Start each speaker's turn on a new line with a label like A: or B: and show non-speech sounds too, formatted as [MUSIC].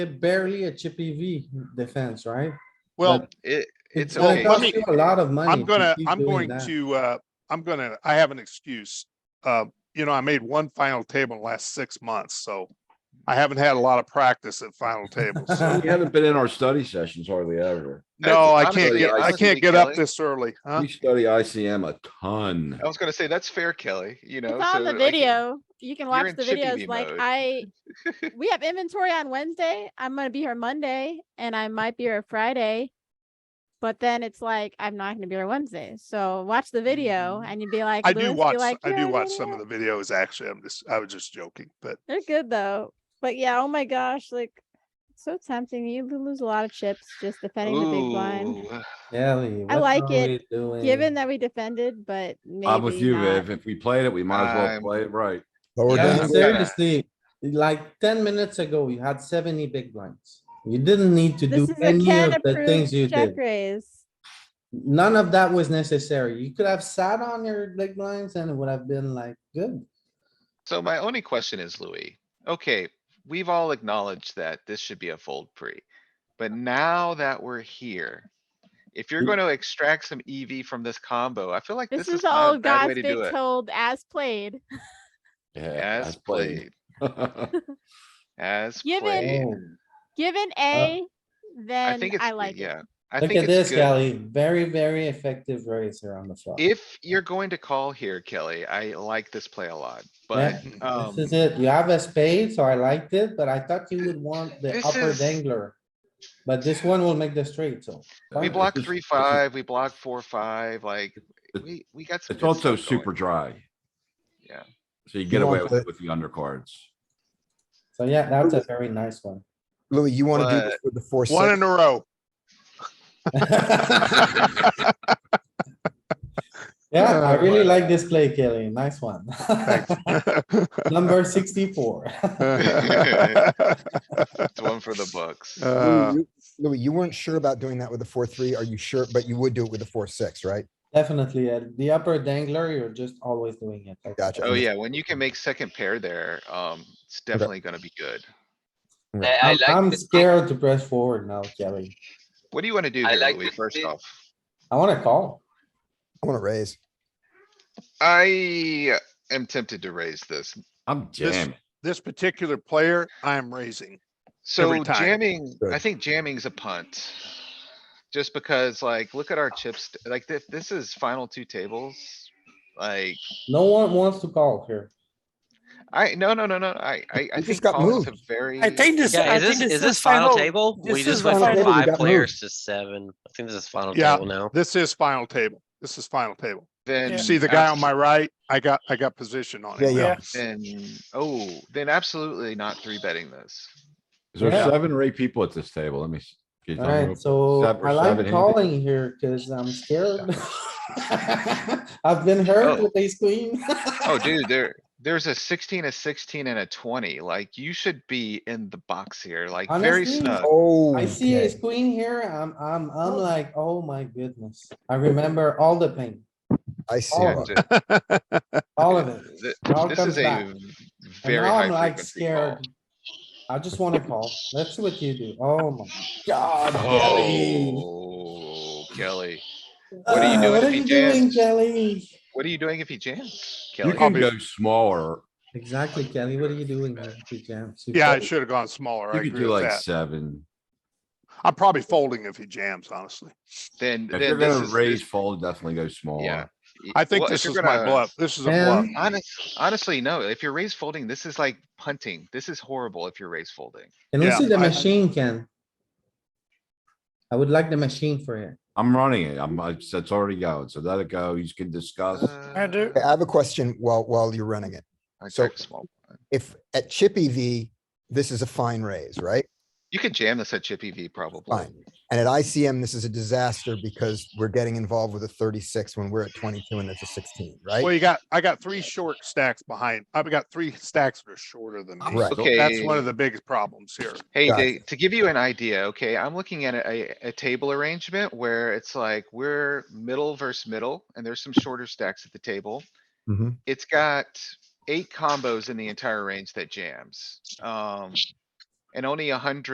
A: barely a chippy V defense, right?
B: Well, it, it's
A: gonna
B: okay.
C: let
A: cost
C: me-
A: you A lot of money.
C: I'm
A: to
C: gonna,
A: keep
C: I'm
A: doing
C: going
A: that.
C: to, uh, I'm gonna, I have an excuse. Uh, you know, I made one final table in the last six months, so I haven't had a lot of practice at
A: [LAUGHS]
C: final tables.
A: Uh,
C: so-
D: We haven't been in our study sessions hardly ever.
C: No, I
B: honestly,
C: can't get, I
B: honestly,
C: can't get up
B: Kelly.
C: this early, huh?
D: We study ICM a ton.
B: I was gonna say, that's fair, Kelly, you know.
E: It's on
B: so,
E: the
B: like,
E: video. You can
B: you're
E: watch
B: in
E: the
B: chippy
E: videos.
B: V
E: Like
B: mode.
C: [LAUGHS]
E: I, we have inventory on Wednesday. I'm gonna be here Monday and I might be here Friday. But then it's like, I'm not gonna be here Wednesday. So watch the video and you'd be like.
C: Mm. I do
E: Lewis,
C: watch,
E: you're like,
C: I
E: "Yeah,
C: do watch
E: yeah,
C: some
E: yeah."
C: of the videos, actually. I'm just, I was just joking, but
E: They're good though. But yeah, oh my gosh, like, so tempting. You lo- lose a lot of chips just defending the big blind.
B: Ooh,
A: Ellie,
E: I
A: what
E: like
A: are
E: it,
A: we doing?
E: Given that we defended, but maybe
D: I'm with you,
E: not.
D: Viv. If we played it, we might as well
B: I'm-
D: play it right.
F: But we're
A: Yeah,
B: I'm
F: down,
B: gonna-
A: seriously, like ten minutes ago, you had seventy big blinds. You didn't need to do
E: This is a
A: any
E: can
A: of the things you
E: approved check
A: did.
E: raise.
A: None of that was necessary. You could have sat on your big blinds and it would have been like, good.
B: So my only question is, Louis, okay, we've all acknowledged that this should be a fold pre. But now that we're here, if you're
A: Mm.
B: gonna extract some EV from this combo, I feel like
E: This
B: this
E: is
B: is
E: the
B: not a
E: old
B: bad way
E: God's
B: to do
E: big
B: it.
E: told as played.
D: Yeah.
B: As
D: that's played. [LAUGHS]
B: played, as
E: Given-
B: played.
A: Oh.
E: Given A, then
B: Uh, I
E: I,
B: think it's,
E: like it.
B: yeah, I
A: Look
B: think
A: at
B: it's
A: this,
B: good.
A: Kelly. Very, very effective raiser on the flop.
B: If you're going to call here, Kelly, I like this play a lot, but,
A: Yeah,
B: um,
A: This is it. You have a spade, so I liked it, but I thought you would want the
B: This
A: upper
B: is-
A: dangler. But this one will make the straight, so.
B: we
A: fine.
B: block
D: This is-
B: three,
D: this is-
B: five, we block four, five, like, we, we got some.
D: It's
B: good
D: also
B: stuff going. [LAUGHS]
D: super dry.
B: Yeah.
D: So you get
F: You
D: away
F: want
D: with
F: the-
D: with the undercards.
A: So yeah, that's a very nice one. [LAUGHS]
F: Louis, you wanna do this with the four,
C: one in
F: six,
C: a row. [LAUGHS]
A: Yeah, I really like this play, Kelly. Nice one. [LAUGHS] Number sixty-four.
B: It's one for the books.
C: Uh,
F: Louis, you- Louis, you weren't sure about doing that with the four, three. Are you sure? But you would do it with the four, six, right?
A: Definitely, uh, the upper dangler, you're just always doing it. like that.
F: Gotcha.
B: Oh, yeah, when you can make second pair there, um, it's definitely gonna be good.
G: I, I
A: I'm
G: like
A: I'm
G: this-
A: scared to press forward now, Kelly.
B: What do you wanna do
G: I
B: here,
G: like
B: Louis,
G: this
B: first
G: bit.
B: off?
A: I wanna call.
F: I wanna raise.
B: I am tempted to raise this.
D: I'm
C: This-
D: jamming.
C: This particular player, I am raising.
B: So
C: time.
B: jamming, I
F: Good.
B: think jamming's a punt. Just because like, look at our chips, like this, this is final two tables. Like,
A: No one wants to call here.
B: I, no, no, no, no, I, I, I
F: just
B: think
F: got
B: call is a
F: moved.
B: very.
H: I think this.
G: Yeah,
H: I
G: is
H: think
G: this, is
H: the
G: this final table?
H: this
G: We
H: is
G: just
H: the
G: went
F: final
G: from
F: table, we
G: five
F: got
G: players to seven. I think this is final
C: Yeah.
G: table now.
C: This is final table. This is final table.
B: Then.
C: You see the guy on
B: abs-
C: my right? I got, I got position on
F: Yeah,
C: it.
F: yeah.
B: Then, oh, then absolutely not three betting this.
D: Is there
A: Yeah.
D: seven or eight people at this table? Let me. s- get down real-
A: Alright, so
D: Seven or
A: I like
D: seven handed.
A: calling here cuz I'm scared. [LAUGHS] I've been hurt
B: Oh.
A: with ace queen. [LAUGHS]
B: Oh, dude, there, there's a sixteen, a sixteen and a twenty, like you should be in the box here, like very
A: Honestly,
B: snug.
F: Oh.
A: I see ace queen here. I'm, I'm, I'm like, oh my goodness. I remember all the pain,
F: I see.
A: Oh,
F: it.
B: Yeah, th-
A: all of it. [LAUGHS]
B: th-
A: It all
B: This
A: comes
B: is
A: back.
B: a
A: And
B: very
A: now I'm
B: high
A: like
B: frequency call.
A: scared. I just wanna call. Let's see what you do. Oh my god. Kelly.
B: Oh, Kelly, what are you
A: Ah,
B: doing
A: What
B: if
A: are
B: he
A: you doing,
B: jams?
A: Kelly?
B: what are you doing if he jams?
D: You
B: Kelly,
D: can
C: Probably-
D: go smaller.
A: Exactly, Kelly. What are you doing? here? You jams. You
C: [LAUGHS] Yeah, I
A: fold.
C: should have gone smaller.
D: You
C: I
D: could
C: agree
D: do
C: with
D: like
C: that.
D: seven.
C: I'm probably folding if he jams, honestly.
B: then,
D: If you're
B: then this
D: gonna
B: is.
D: raise fold, definitely go smaller.
B: y-
C: I think
B: well, if
C: this
B: you're
C: is my
B: gonna-
C: bluff. This is a
A: Yeah.
C: bluff.
B: Honest, honestly, no, if you're raise folding, this is like punting. This is horrible if you're raise folding.
A: Can we
C: Yeah,
A: see the
C: I-
A: machine, Ken? I would like the machine for it.
D: I'm running it. I'm, I- it's already going. So let it go. You can discuss.
B: I
H: do.
F: I have a question while, while you're running it. So-
B: check small. blind.
F: If at Chippy V, this is a fine raise, right?
B: You could jam this at Chippy V probably.
F: Fine. And at ICM, this is a disaster because we're getting involved with a thirty-six when we're at twenty-two and it's a sixteen,
C: Well,
F: right?
C: you got, I got three short stacks behind. I've got three stacks that are shorter than me.
D: Right.
C: So That's one
B: Okay.
C: of the biggest problems here.
B: Hey,
F: Gotcha.
B: to, to give you an idea, okay, I'm looking at a, a table arrangement where it's like we're middle versus middle and there's some shorter stacks at the table.
F: Mhm.
B: It's got eight combos in the entire range that jams. Um, and only a hundred